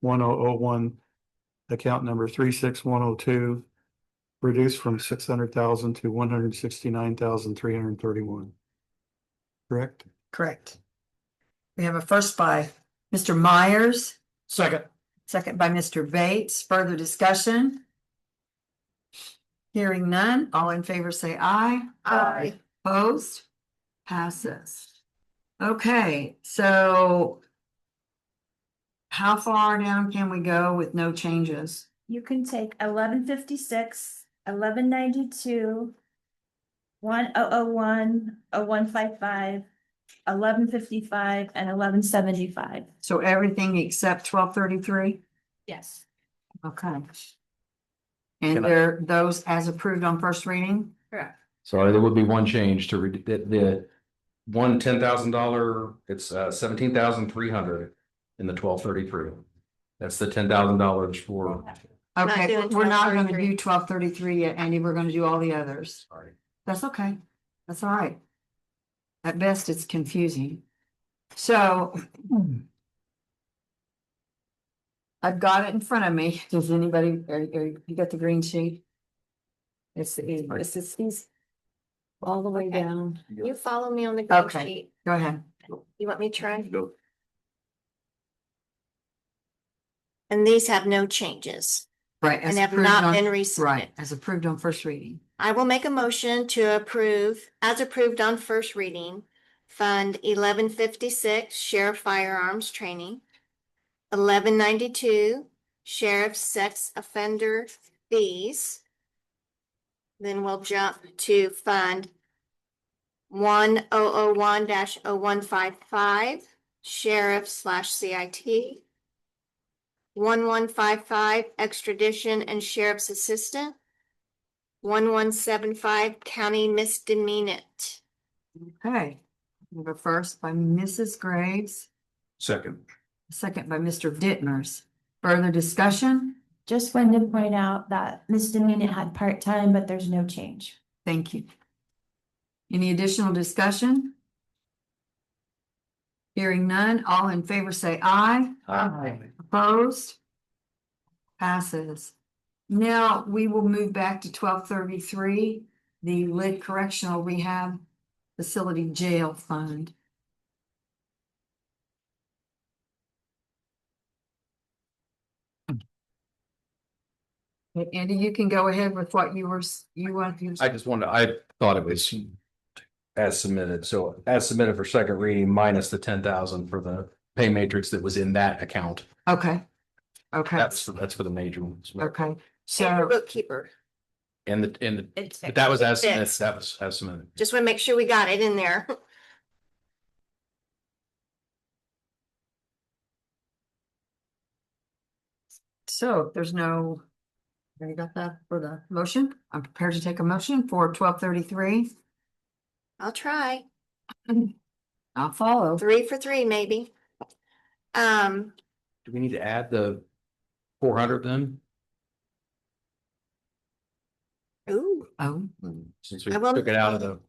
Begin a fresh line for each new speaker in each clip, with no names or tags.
one oh oh one, account number three six one oh two, reduced from six hundred thousand to one hundred sixty-nine thousand three hundred thirty-one. Correct?
Correct. We have a first by Mr. Myers,
Second.
second by Mr. Bates. Further discussion? Hearing none, all in favor say aye.
Aye.
Opposed? Passes. Okay, so how far down can we go with no changes?
You can take eleven fifty-six, eleven ninety-two, one oh oh one, oh one five five, eleven fifty-five, and eleven seventy-five.
So everything except twelve thirty-three?
Yes.
Okay. And
Can I-
there, those as approved on first reading?
Correct.
Sorry, there would be one change to read the, the one ten thousand dollar, it's uh seventeen thousand three hundred in the twelve thirty-three. That's the ten thousand dollars for,
Okay,
doing
we're not gonna
1233.
do twelve thirty-three yet, Andy, we're gonna do all the others.
sorry.
That's okay. That's all right. At best, it's confusing. So. I've got it in front of me. Does anybody, are, are- you got the green sheet? It's, the- it's, it's these. All the way
Okay.
down.
You follow me on the green
Okay.
sheet.
Go ahead.
You want me to try? And these have no changes
Right. as
and have
approved
not
on-
been resubmitted.
Right, as approved on first reading.
I will make a motion to approve, as approved on first reading, Fund eleven fifty-six Sheriff Firearms Training, eleven ninety-two Sheriff Sex Offender Fees. Then we'll jump to Fund one oh oh one dash oh one five five Sheriff slash CIT, one one five five Extradition and Sheriff's Assistant, one one seven five county misdemeanant.
Okay. We have a first by Mrs. Graves,
Second.
a second by Mr. Dittmers. Further discussion?
Just wanted to point out that misdemeanant had part-time, but there's no change.
Thank you. Any additional discussion? Hearing none, all in favor say aye. Opposed? Passes. Now, we will move back to twelve thirty-three, the Lid Correctional Rehab Facility Jail Fund. Andy, you can go ahead with what you were, s- you want. you-
I just wanted, I thought it was as submitted, so as submitted for second reading minus the ten thousand for the pay matrix that was in that account.
Okay. Okay,
That's, that's for the major ones.
okay,
Senior
so,
bookkeeper.
And the, and the-
It's,
but that was as,
Fixed.
that was as submitted.
just want to make sure we got it in there.
so if there's no. You got that for the motion? I'm prepared to take a motion for twelve thirty-three.
I'll try.
I'll follow.
Three for three, maybe. Um,
Do we need to add the four hundred then?
ooh,
Oh,
Since we
I will-
took it out of the.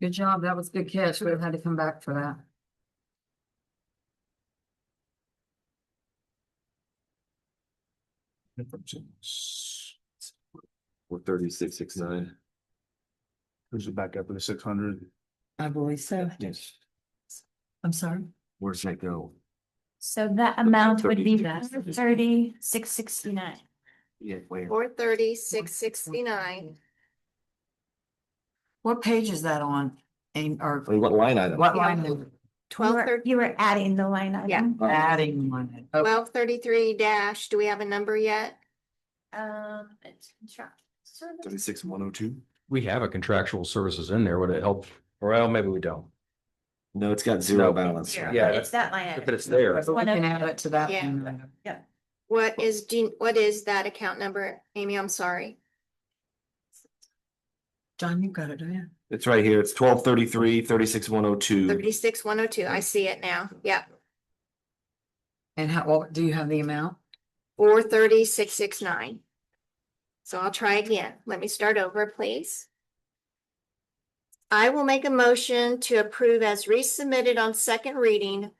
good job. That was a good catch. We'd have had to come back for that.
Four thirty-six, six nine.
Who's it back up to six hundred?
I believe so.
Yes.
I'm sorry.
Where's that go?
So that amount would be
36.
thirty, six sixty-nine.
Yeah, where?
four thirty, six sixty-nine.
What page is that on? And or
What line item?
what line number?
Twelve thirty,
You were adding the line item.
Yeah.
Adding one. Oh,
twelve thirty-three dash, do we have a number yet?
Um, it's contract.
Thirty-six, one oh two?
We have a contractual services in there, would it help? Well, maybe we don't.
No, it's got zero
No.
balance.
Yeah. Yeah.
It's that line
But
item.
it's there.
But we can add it to that.
Yeah.
one.
What is, do you- what is that account number? Amy, I'm sorry.
John, you got it, do you?
It's right here. It's twelve thirty-three, thirty-six, one oh two.
Thirty-six, one oh two. I see it now. Yep.
And how, well, do you have the amount?
Four thirty, six six nine. So I'll try again. Let me start over, please. I will make a motion to approve as resubmitted on second reading